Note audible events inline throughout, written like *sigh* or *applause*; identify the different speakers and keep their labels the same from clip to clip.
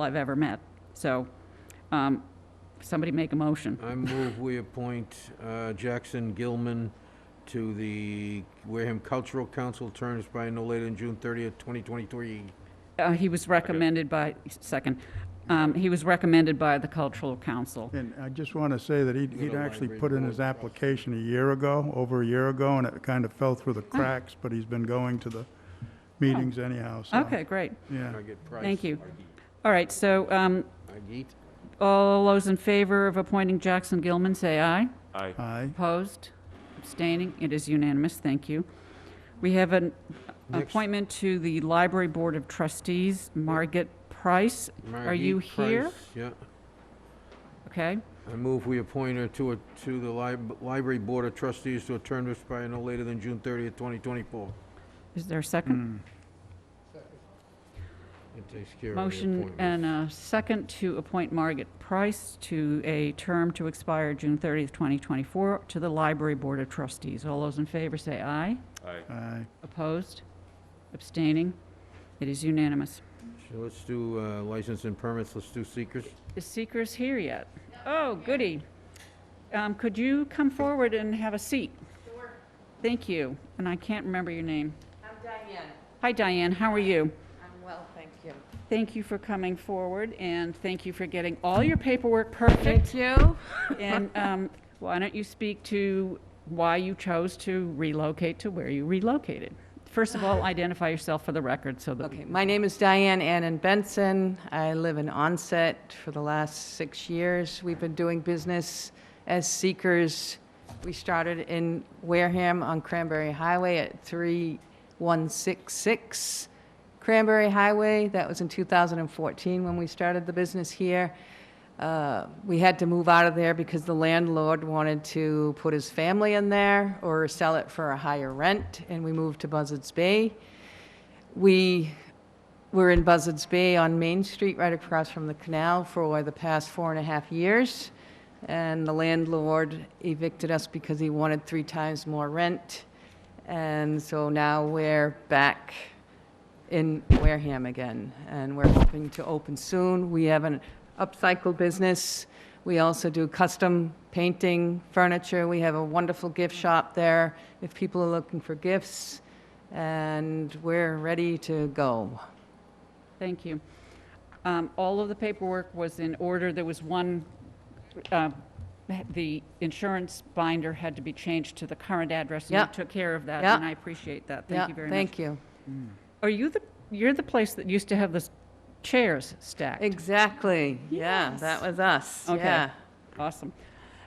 Speaker 1: I've ever met. So, um, somebody make a motion.
Speaker 2: I move we appoint uh, Jackson Gilman to the Wareham Cultural Council, term expiring no later than June 30th, 2023.
Speaker 1: Uh, he was recommended by, second, um, he was recommended by the Cultural Council.
Speaker 3: And I just want to say that he'd,
Speaker 2: Go
Speaker 3: he'd
Speaker 2: to
Speaker 3: actually
Speaker 2: library
Speaker 3: put in
Speaker 2: board
Speaker 3: his
Speaker 2: trust.
Speaker 3: application a year ago, over a year ago, and it kind of fell through the cracks, but he's been going to the meetings anyhow, so.
Speaker 1: Okay, great.
Speaker 3: Yeah.
Speaker 2: I get Price.
Speaker 1: Thank you. All right, so, um,
Speaker 2: Agit?
Speaker 1: all those in favor of appointing Jackson Gilman, say aye.
Speaker 4: Aye.
Speaker 3: Aye.
Speaker 1: Opposed? Abstaining? It is unanimous. Thank you. We have an
Speaker 2: Next.
Speaker 1: appointment to the Library Board of Trustees, Margaret Price. Are you
Speaker 2: Margit Price,
Speaker 1: here?
Speaker 2: Yeah.
Speaker 1: Okay?
Speaker 2: I move we appoint her to, a- to the lib- Library Board of Trustees to a term expiring no later than June 30th, 2024.
Speaker 1: Is there a second?
Speaker 2: It takes care of the
Speaker 1: Motion
Speaker 2: appointment.
Speaker 1: and a second to appoint Margaret Price to a term to expire June 30th, 2024, to the Library Board of Trustees. All those in favor say aye.
Speaker 4: Aye.
Speaker 3: Aye.
Speaker 1: Opposed? Abstaining? It is unanimous.
Speaker 2: So let's do uh, license and permits, let's do seekers.
Speaker 1: Is Seeker's here yet? Oh, goody. Um, Could you come forward and have a seat? Thank you. And I can't remember your name.
Speaker 5: I'm Diane.
Speaker 1: Hi, Diane. How are you?
Speaker 5: I'm well, thank you.
Speaker 1: Thank you for coming forward, and thank you for getting all your paperwork perfect.
Speaker 5: you.
Speaker 1: And um, why don't you speak to why you chose to relocate to where you relocated? First of
Speaker 5: *sighs*
Speaker 1: all, identify yourself for the record so that,
Speaker 5: Okay, my name is Diane Annan Benson. I live in Onset for the last six years. We've been doing business as Seekers. We started in Wareham on Cranberry Highway at 3166 Cranberry Highway. That was in 2014 when we started the business here. Uh, We had to move out of there because the landlord wanted to put his family in there or sell it for a higher rent, and we moved to Buzzards Bay. We were in Buzzards Bay on Main Street, right across from the canal, for the past four and a half years. And the landlord evicted us because he wanted three times more rent. And so now we're back in Wareham again, and we're hoping to open soon. We have an upcycle business. We also do custom painting, furniture. We have a wonderful gift shop there if people are looking for gifts, and we're ready to go.
Speaker 1: thank you. Um, All of the paperwork was in order. There was one, uh, the insurance binder had to be changed to the current address, and
Speaker 5: Yeah.
Speaker 1: you took care of that,
Speaker 5: Yeah.
Speaker 1: and I appreciate that.
Speaker 5: Yeah,
Speaker 1: Thank you very much.
Speaker 5: Thank you.
Speaker 1: Are you the, you're the place that used to have the chairs stacked?
Speaker 5: Exactly. Yeah, that was us.
Speaker 1: Okay.
Speaker 5: Yeah,
Speaker 1: Awesome.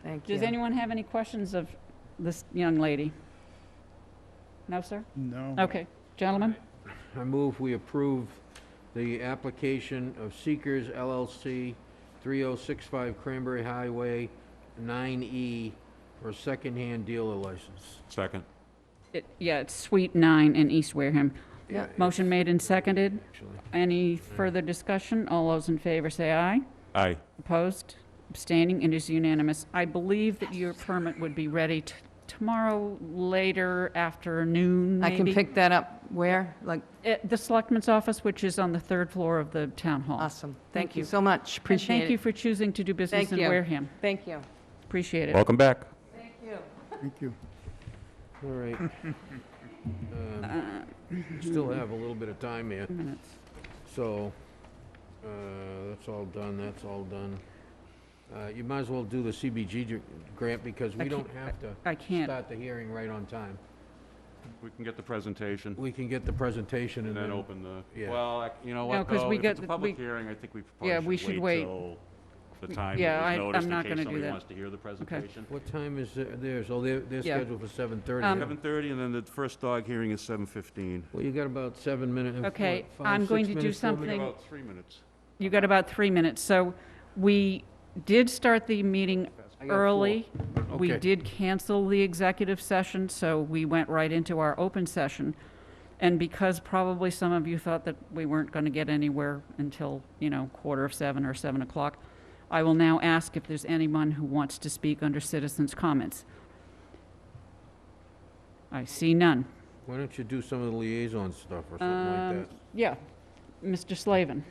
Speaker 5: thank you.
Speaker 1: Does anyone have any questions of this young lady? No, sir?
Speaker 3: No.
Speaker 1: Okay, gentlemen?
Speaker 2: I move we approve the application of Seekers LLC, 3065 Cranberry Highway, 9E, for a secondhand dealer license.
Speaker 4: Second.
Speaker 1: It- Yeah, it's Suite 9 in East Wareham.
Speaker 5: Yeah.
Speaker 1: Motion made and seconded.
Speaker 2: Actually,
Speaker 1: Any further discussion? All those in favor say aye.
Speaker 4: Aye.
Speaker 1: Opposed? Abstaining? It is unanimous. I believe that your permit would be ready t- tomorrow later afternoon,
Speaker 5: I can
Speaker 1: maybe?
Speaker 5: pick that up where? Like,
Speaker 1: At the Selectman's office, which is on the third floor of the Town Hall.
Speaker 5: awesome.
Speaker 1: Thank
Speaker 5: Thank you
Speaker 1: you.
Speaker 5: so much.
Speaker 1: And
Speaker 5: Appreciate
Speaker 1: Thank you
Speaker 5: it.
Speaker 1: for choosing to do business
Speaker 5: Thank
Speaker 1: in
Speaker 5: you.
Speaker 1: Wareham.
Speaker 5: Thank you.
Speaker 1: Appreciate it.
Speaker 4: Welcome back.
Speaker 5: Thank you.
Speaker 3: Thank you.
Speaker 2: All right. Um, Still have a little bit of time here,
Speaker 1: Minutes.
Speaker 2: so uh, that's all done, that's all done. Uh, You might as well do the CBG gr- grant because
Speaker 1: I
Speaker 2: we
Speaker 1: can't-
Speaker 2: don't have to
Speaker 1: I can't.
Speaker 2: start the hearing right on time.
Speaker 4: We can get the presentation
Speaker 2: We can get the presentation
Speaker 4: and
Speaker 2: and
Speaker 4: then
Speaker 2: then
Speaker 4: open the,
Speaker 2: yeah.
Speaker 4: well, I- you know
Speaker 1: No,
Speaker 4: what,
Speaker 1: 'cause
Speaker 4: though?
Speaker 1: we
Speaker 4: If
Speaker 1: get
Speaker 4: it's a
Speaker 1: the-
Speaker 4: public
Speaker 1: we-
Speaker 4: hearing, I think we
Speaker 1: Yeah, we
Speaker 4: probably
Speaker 1: should
Speaker 4: should
Speaker 1: wait.
Speaker 4: wait till the time
Speaker 1: yeah, I-
Speaker 4: that
Speaker 1: I'm
Speaker 4: was noticed
Speaker 1: not
Speaker 4: in case
Speaker 1: gonna do
Speaker 4: somebody
Speaker 1: that.
Speaker 4: wants to hear the presentation.
Speaker 2: What time is their- theirs? Oh, they're, they're
Speaker 1: Yeah.
Speaker 2: scheduled for seven thirty.
Speaker 1: Um,
Speaker 4: Seven thirty, and then the first dog hearing is seven fifteen.
Speaker 2: Well, you got about seven uh, minutes.
Speaker 1: Okay, I'm going to do something- Thing-
Speaker 4: About three minutes.
Speaker 1: You got about three minutes. So we did start the meeting
Speaker 2: I got four.
Speaker 1: early. We
Speaker 2: Okay.
Speaker 1: did cancel the executive session, so we went right into our open session. And because probably some of you thought that we weren't going to get anywhere until, you know, quarter of seven or seven o'clock, I will now ask if there's anyone who wants to speak under citizens' comments. I see none.
Speaker 2: Why don't you do some of the liaison stuff or something
Speaker 1: Um,
Speaker 2: like that?
Speaker 1: Yeah. Mr. Slavin.